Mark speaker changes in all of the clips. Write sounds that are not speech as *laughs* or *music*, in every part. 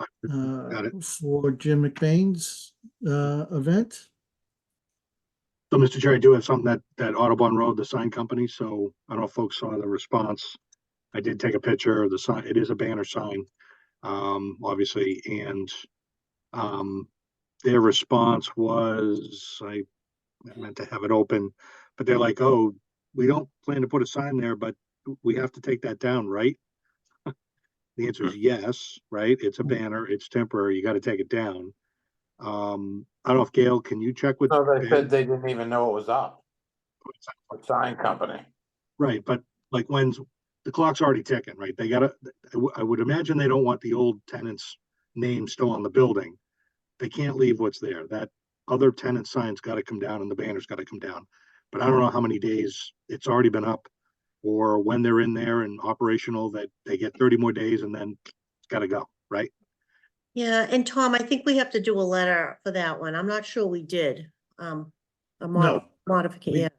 Speaker 1: uh,
Speaker 2: Got
Speaker 1: for Jim McBain's uh, event.
Speaker 2: So, Mr. Chair, I do have something that, that Audubon Road, the sign company, so I don't know if folks saw the response. I did take a picture of the sign, it is a banner sign, um, obviously, and, um, their response was, I I meant to have it open, but they're like, oh, we don't plan to put a sign there, but we have to take that down, right? *laughs* The answer is yes, right? It's a banner, it's temporary, you gotta take it down. Um, I don't know if Gail, can you check with?
Speaker 3: No, they
Speaker 2: Ben?
Speaker 3: said they didn't even know it was up, a sign company.
Speaker 2: Right, but like when's, the clock's already ticking, right? They gotta, I wou- I would imagine they don't want the old tenant's name still on the building. They can't leave what's there. That other tenant sign's gotta come down and the banner's gotta come down. But I don't know how many days it's already been up or when they're in there and operational that they get thirty more days and then it's gotta go, right?
Speaker 4: Yeah, and Tom, I think we have to do a letter for that one. I'm not sure we did. Um, a mod-
Speaker 1: No. We-
Speaker 4: modification, yeah. And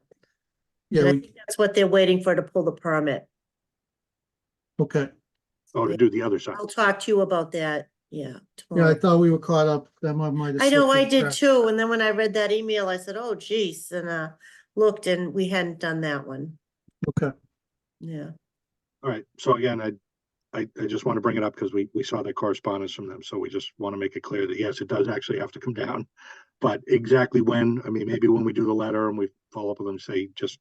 Speaker 1: Yeah,
Speaker 4: I
Speaker 1: we-
Speaker 4: think That's what they're waiting for to pull the permit.
Speaker 1: okay.
Speaker 2: Oh, to
Speaker 4: Yeah.
Speaker 2: do the other side.
Speaker 4: I'll talk to you about that, yeah.
Speaker 1: Yeah, I
Speaker 4: tomorrow.
Speaker 1: thought we were caught up. That might, might have.
Speaker 4: I know
Speaker 1: slipped
Speaker 4: I
Speaker 1: through
Speaker 4: did
Speaker 1: cracks.
Speaker 4: too, and then when I read that email, I said, oh geez, and uh, looked and we hadn't done that one,
Speaker 1: Okay,
Speaker 5: *laughs*
Speaker 4: yeah.
Speaker 2: All right, so again, I, I, I just want to bring it up because we, we saw the correspondence from them, so we just want to make it clear that yes, it does actually have to come down. But exactly when, I mean, maybe when we do the letter and we follow up with them, say, just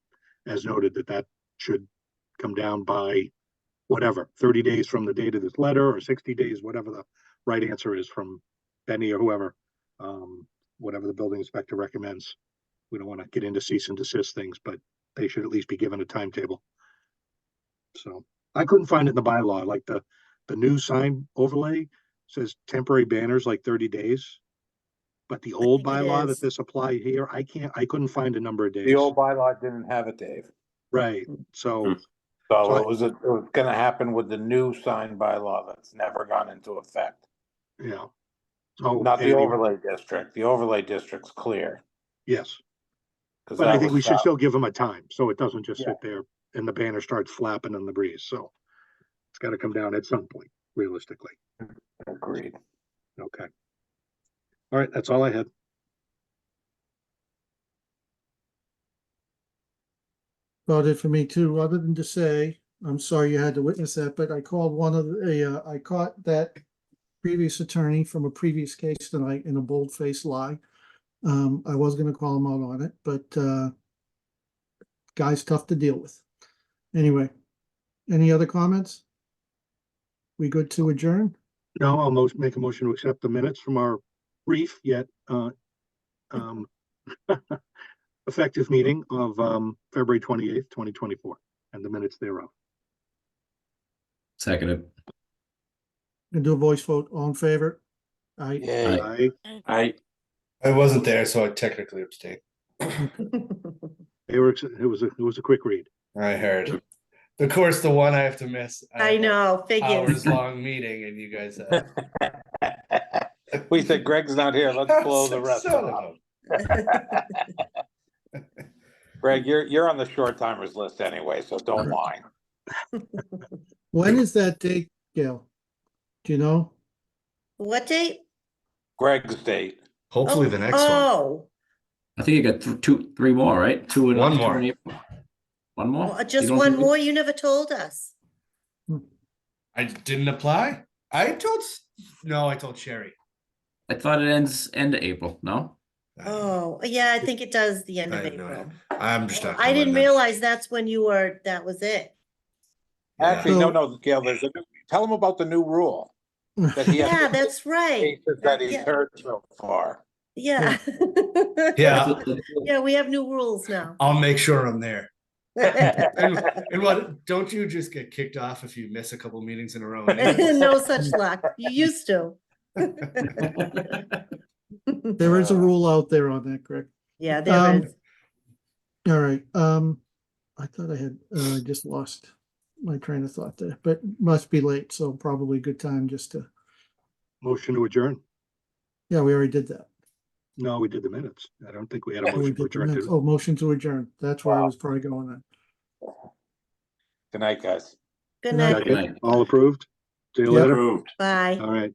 Speaker 2: as noted, that that should come down by whatever, thirty days from the date of this letter or sixty days, whatever the right answer is from Benny or whoever. Um, whatever the building inspector recommends. We don't want to get into cease and desist things, but they should at least be given a timetable. So I couldn't find it in the bylaw, like the, the new sign overlay says temporary banners like thirty days. But the old
Speaker 4: think it
Speaker 2: bylaw that
Speaker 4: is.
Speaker 2: this applied here, I can't, I couldn't find a number of days.
Speaker 3: The old Hmm. bylaw didn't have it, Dave.
Speaker 2: Right, so,
Speaker 3: So
Speaker 2: So I-
Speaker 3: it was, it was gonna happen with the new sign bylaw that's never gone into effect.
Speaker 2: yeah. Oh, So.
Speaker 3: Not the
Speaker 2: anyway,
Speaker 3: overlay district. The overlay district's clear.
Speaker 2: Yes,
Speaker 3: 'cause
Speaker 2: but I
Speaker 3: that
Speaker 2: think
Speaker 3: was
Speaker 2: we should
Speaker 3: stopped.
Speaker 2: still give them a time, so it doesn't just
Speaker 3: Yeah.
Speaker 2: sit there and the banner starts flapping in the breeze, so. It's gotta come down at some point, realistically,
Speaker 3: Agreed.
Speaker 2: okay. All right, that's all I had.
Speaker 1: about it for me too, other than to say, I'm sorry you had to witness that, but I called one of the, uh, I caught that previous attorney from a previous case tonight in a bold-faced lie. Um, I was gonna call him out on it, but, uh, guy's tough to deal with. Anyway, any other comments? We good to adjourn?
Speaker 2: No, I'll most, make a motion to accept the minutes from our brief yet, uh, um, *laughs* effective meeting of, um, February twenty-eighth, twenty twenty-four, and the minutes thereof.
Speaker 6: Seconded.
Speaker 1: Gonna do a voice vote, all in favor? Aye.
Speaker 3: Yay.
Speaker 2: Aye,
Speaker 6: I.
Speaker 5: I wasn't there, so I technically abstained.
Speaker 2: they were, ex- it was, a it was a quick read.
Speaker 5: I heard. Of course, the one I have to miss.
Speaker 4: I
Speaker 5: have a
Speaker 4: know, figures.
Speaker 5: Hours long meeting, and you guys. uh,
Speaker 3: *laughs* *laughs* We said Greg's not here.
Speaker 5: *laughs*
Speaker 3: Let's blow the rest
Speaker 5: Son of
Speaker 3: up. Greg, you're, you're on the short timers list anyway, so don't mind.
Speaker 1: When is that date, Gail? Do you know?
Speaker 4: What date?
Speaker 3: Greg's date.
Speaker 5: a- Hopefully, the next one.
Speaker 4: Oh,
Speaker 6: I think you got th- two, three more, right? Two and
Speaker 5: One
Speaker 6: two
Speaker 5: more.
Speaker 6: and eight. One more?
Speaker 4: oh,
Speaker 6: You
Speaker 4: just
Speaker 6: don't
Speaker 4: one
Speaker 6: think we-
Speaker 4: more, you never told us.
Speaker 5: I didn't apply. I told. S- No, I told Sherry.
Speaker 6: I thought it ends end of April, no?
Speaker 5: I don't know.
Speaker 4: Oh, yeah, I think it does the end
Speaker 5: I
Speaker 4: of
Speaker 5: didn't know that.
Speaker 4: April.
Speaker 5: I'm just not.
Speaker 4: I
Speaker 5: going
Speaker 4: didn't
Speaker 5: now.
Speaker 4: realize that's when you were, that was it.
Speaker 5: Yeah.
Speaker 3: Actually,
Speaker 1: So-
Speaker 3: no, no, Gail, there's a, new- tell him about the new rule. that he has
Speaker 4: Yeah,
Speaker 3: to-
Speaker 4: that's right.
Speaker 3: cases that he's
Speaker 4: Yeah.
Speaker 3: heard so far.
Speaker 4: Yeah. *laughs*
Speaker 5: Yeah,
Speaker 6: *laughs*
Speaker 4: Yeah, we have new rules
Speaker 5: *laughs*
Speaker 4: now. *laughs*
Speaker 5: I'll make sure I'm there.
Speaker 4: No *laughs*
Speaker 5: And, and what? Don't you just get kicked off if you miss a couple meetings in
Speaker 4: *laughs*
Speaker 5: a row? anyway?
Speaker 4: such luck. You used to.
Speaker 1: *laughs* There is a
Speaker 3: Uh,
Speaker 1: rule out there on that, Greg.
Speaker 4: Yeah,
Speaker 1: Um,
Speaker 4: there is.
Speaker 1: All right, um, I thought I had, uh, I just lost my train of thought there, but must be late, so probably a good time just to,
Speaker 2: Motion to adjourn.
Speaker 1: yeah, we already did that.
Speaker 2: No, we did the minutes. I don't think we had a motion to
Speaker 1: We did the
Speaker 2: adjourn.
Speaker 1: minutes.
Speaker 2: did we?
Speaker 1: Oh, motion to adjourn. That's where I
Speaker 3: Wow.
Speaker 1: was probably going on.
Speaker 3: Good night, guys.
Speaker 4: Good
Speaker 1: no,
Speaker 4: night.
Speaker 6: Good night.
Speaker 2: All approved? See you
Speaker 1: Yeah.
Speaker 2: later.
Speaker 4: Bye.
Speaker 2: All right.